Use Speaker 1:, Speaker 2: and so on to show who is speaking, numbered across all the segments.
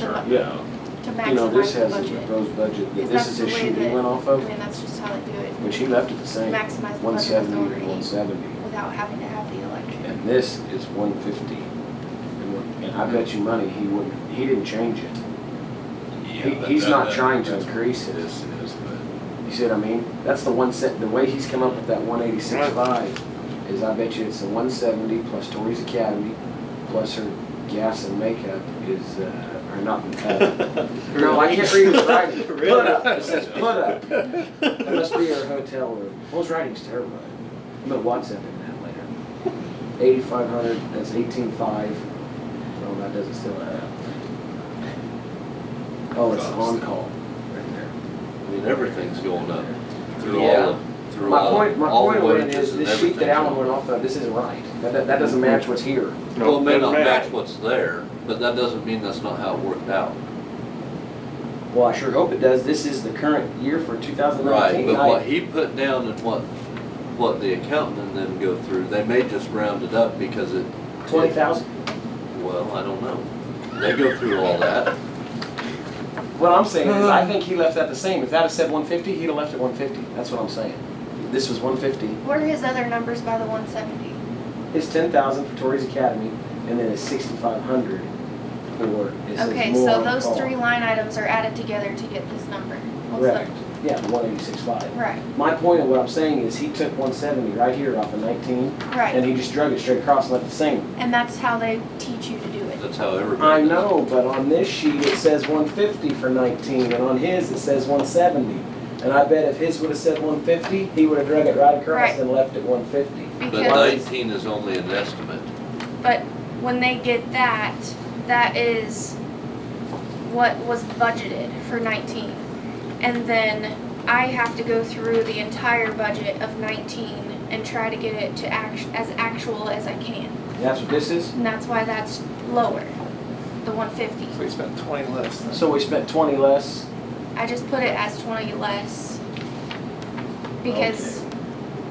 Speaker 1: Yeah.
Speaker 2: to
Speaker 3: You know, this
Speaker 2: maximize the
Speaker 3: has a
Speaker 2: budget.
Speaker 3: proposed budget,
Speaker 2: Is
Speaker 3: that
Speaker 2: that
Speaker 3: this is
Speaker 2: the
Speaker 3: his
Speaker 2: way
Speaker 3: sheet he
Speaker 2: that-
Speaker 3: went off
Speaker 2: I
Speaker 3: of,
Speaker 2: mean, that's just how they do it,
Speaker 3: but she left it the same,
Speaker 2: maximize the
Speaker 3: one
Speaker 2: budget
Speaker 3: seventy to one
Speaker 2: authority
Speaker 3: seventy.
Speaker 2: without having to have the election.
Speaker 3: And this is one fifty. And I bet you money he wouldn't, he didn't change it. He, he's not trying to increase it.
Speaker 1: This is, but
Speaker 3: You see what I mean? That's the one set, the way he's come up with that one eighty-six five is I bet you it's the one seventy plus Tori's Academy, plus her gas and makeup is, uh, or not, uh, no, I can't read his writing. Put up, it says put up. That must be her hotel room. Well, his writing's terrible. I'm gonna WhatsApp him that later. Eighty-five hundred, that's eighteen-five. Oh, that doesn't still add up. Oh, it's on-call right there.
Speaker 1: I mean, everything's going up through
Speaker 3: Yeah.
Speaker 1: all, the- through
Speaker 3: My
Speaker 1: all,
Speaker 3: point, my
Speaker 1: all the
Speaker 3: point of it
Speaker 1: wages
Speaker 3: is,
Speaker 1: and
Speaker 3: this sheet that Alan
Speaker 1: everything.
Speaker 3: went off of, this isn't right. That, that, that doesn't match what's here.
Speaker 1: Well, it may not
Speaker 4: No, doesn't
Speaker 1: match
Speaker 4: matter.
Speaker 1: what's there, but that doesn't mean that's not how it worked out.
Speaker 3: Well, I sure hope it does. This is the current year for two thousand
Speaker 1: Right,
Speaker 3: nineteen.
Speaker 1: but what he put down and what, what the accountant and them go through, they may just round it up because it.
Speaker 3: Twenty thousand?
Speaker 1: Well, I don't know. They go through all that.
Speaker 3: What I'm saying is,
Speaker 2: Hmm.
Speaker 3: I think he left that the same. If that had said one fifty, he'd have left it one fifty. That's what I'm saying. This was one fifty.
Speaker 2: What are his other numbers by the one seventy?
Speaker 3: It's ten thousand for Torrey's Academy, and then it's sixty-five hundred for, it says
Speaker 2: Okay,
Speaker 3: more
Speaker 2: so
Speaker 3: on
Speaker 2: those
Speaker 3: call.
Speaker 2: three line items are added together to get this number. What's
Speaker 3: Correct. Yeah, the one eighty-six
Speaker 2: the-
Speaker 3: five.
Speaker 2: Right,
Speaker 3: My point of what I'm saying is, he took one seventy right here off of nineteen, and
Speaker 2: right.
Speaker 3: he just drug it straight across and left it the same.
Speaker 2: And that's how they teach you to do it.
Speaker 1: That's how everybody.
Speaker 3: I know, but on this sheet, it says one fifty for nineteen, and on his, it says one seventy. And I bet if his would've said one fifty, he would've drug it right across
Speaker 2: Right.
Speaker 3: and left it one fifty.
Speaker 1: But
Speaker 2: Because,
Speaker 1: nineteen is only an estimate.
Speaker 2: but when they get that, that is what was budgeted for nineteen. And then I have to go through the entire budget of nineteen and try to get it to act, as actual as I can.
Speaker 3: That's what this is?
Speaker 2: And that's why that's lower, the one fifty.
Speaker 4: So we spent twenty less than.
Speaker 3: So we spent twenty less,
Speaker 2: I just put it as twenty less because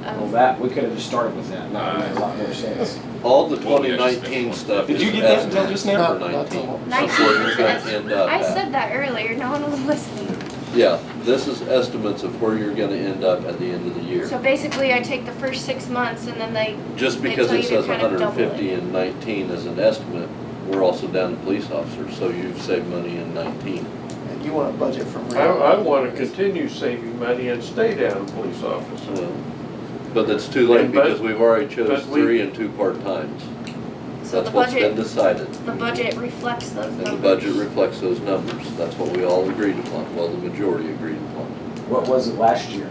Speaker 3: well,
Speaker 2: of,
Speaker 3: that, we could've just started with that, that would make a lot more sense.
Speaker 1: All the
Speaker 5: Well,
Speaker 1: twenty
Speaker 5: yeah, just
Speaker 1: nineteen
Speaker 5: next
Speaker 1: stuff
Speaker 3: Did
Speaker 1: is
Speaker 3: you get that until
Speaker 1: estimate
Speaker 3: just now?
Speaker 1: for
Speaker 4: Not- not
Speaker 1: nineteen.
Speaker 4: the-
Speaker 1: That's where you're gonna end up
Speaker 2: I
Speaker 1: at.
Speaker 2: said that earlier, no one was listening.
Speaker 1: Yeah, this is estimates of where you're gonna end up at the end of the
Speaker 2: So
Speaker 1: year.
Speaker 2: basically, I take the first six months and then they,
Speaker 1: Just
Speaker 2: They
Speaker 1: because
Speaker 2: tell
Speaker 1: it
Speaker 2: you to
Speaker 1: says
Speaker 2: kind of
Speaker 1: hundred and
Speaker 2: double
Speaker 1: fifty and nineteen as an estimate, we're also down to police officers, so you've saved money in nineteen.
Speaker 4: And you want a budget from.
Speaker 5: I, I wanna continue saving money and stay down police officer.
Speaker 1: Well, But that's too late
Speaker 5: And but-
Speaker 1: because we've already chose
Speaker 5: but we-
Speaker 1: three and two part-times.
Speaker 2: so
Speaker 1: That's
Speaker 2: the
Speaker 1: what's
Speaker 2: budget,
Speaker 1: been decided.
Speaker 2: the budget reflects those
Speaker 1: And
Speaker 2: numbers.
Speaker 1: the budget reflects those numbers. That's what we all agreed upon, well, the majority agreed upon.
Speaker 3: What was it last year?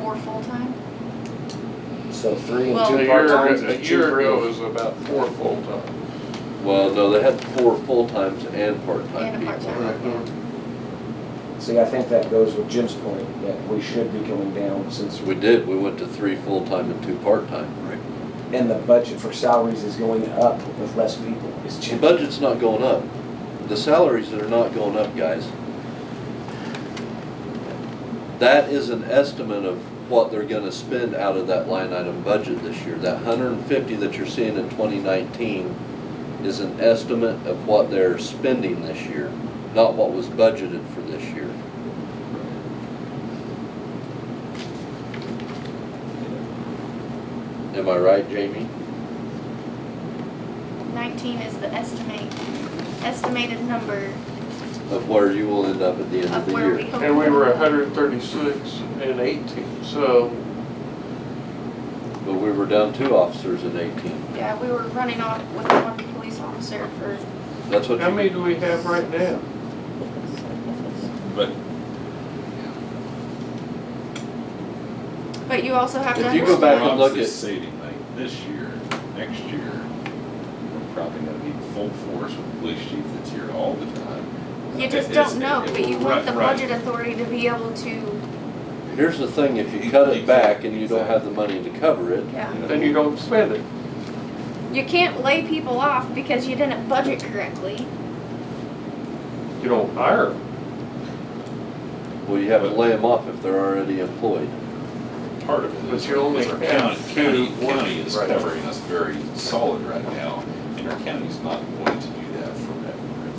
Speaker 2: For full-time?
Speaker 3: So three and
Speaker 2: Well-
Speaker 5: A
Speaker 3: two
Speaker 5: year,
Speaker 3: part-times
Speaker 5: a
Speaker 3: and two
Speaker 5: year ago
Speaker 3: free.
Speaker 5: was about four full-time.
Speaker 1: Well, no, they had four full-times and part-time
Speaker 2: And a
Speaker 1: people.
Speaker 2: part-time, yeah.
Speaker 3: See, I think that goes with Jim's point, that we should be going down since we
Speaker 1: We did, we went to three full-time and two part-time.
Speaker 3: And the budget for salaries is going up with less people. It's
Speaker 1: The
Speaker 3: cheap.
Speaker 1: budget's not going up. The salaries are not going up, guys. That is an estimate of what they're gonna spend out of that line item budget this year. That hundred and fifty that you're seeing in twenty nineteen is an estimate of what they're spending this year, not what was budgeted for this year. Am I right, Jamie?
Speaker 2: Nineteen is the estimate, estimated number
Speaker 1: Of where you will end up at the end of
Speaker 2: of
Speaker 1: the year.
Speaker 2: where we hope.
Speaker 5: And we were hundred and thirty-six and eighteen, so
Speaker 1: But we were down two officers in eighteen.
Speaker 2: Yeah, we were running off with one police officer for,
Speaker 1: That's what
Speaker 5: how
Speaker 1: you,
Speaker 5: many do we have right now? But.
Speaker 2: but you also have to
Speaker 1: If you go back and look
Speaker 5: Obviously
Speaker 1: at,
Speaker 5: saving like this year, next year, we're probably gonna be full force with police chief that's here all the time.
Speaker 2: You just
Speaker 5: It's-
Speaker 2: don't know,
Speaker 5: it- it
Speaker 2: but
Speaker 5: will
Speaker 2: you want
Speaker 5: run-
Speaker 2: the
Speaker 5: right.
Speaker 2: budget authority to be able to,
Speaker 1: here's the thing, if you cut it back and you don't have the money to cover it,
Speaker 2: yeah.
Speaker 5: Then you don't spend it.
Speaker 2: You can't lay people off because you didn't budget correctly.
Speaker 5: You don't hire 'em.
Speaker 1: well, you have to lay them off if they're already employed.
Speaker 6: part of it
Speaker 5: But
Speaker 6: is
Speaker 5: you only
Speaker 6: is our
Speaker 5: have
Speaker 6: county, county,
Speaker 5: two
Speaker 6: county is
Speaker 5: working right now.
Speaker 6: covering us very solid right now, and our county's not going to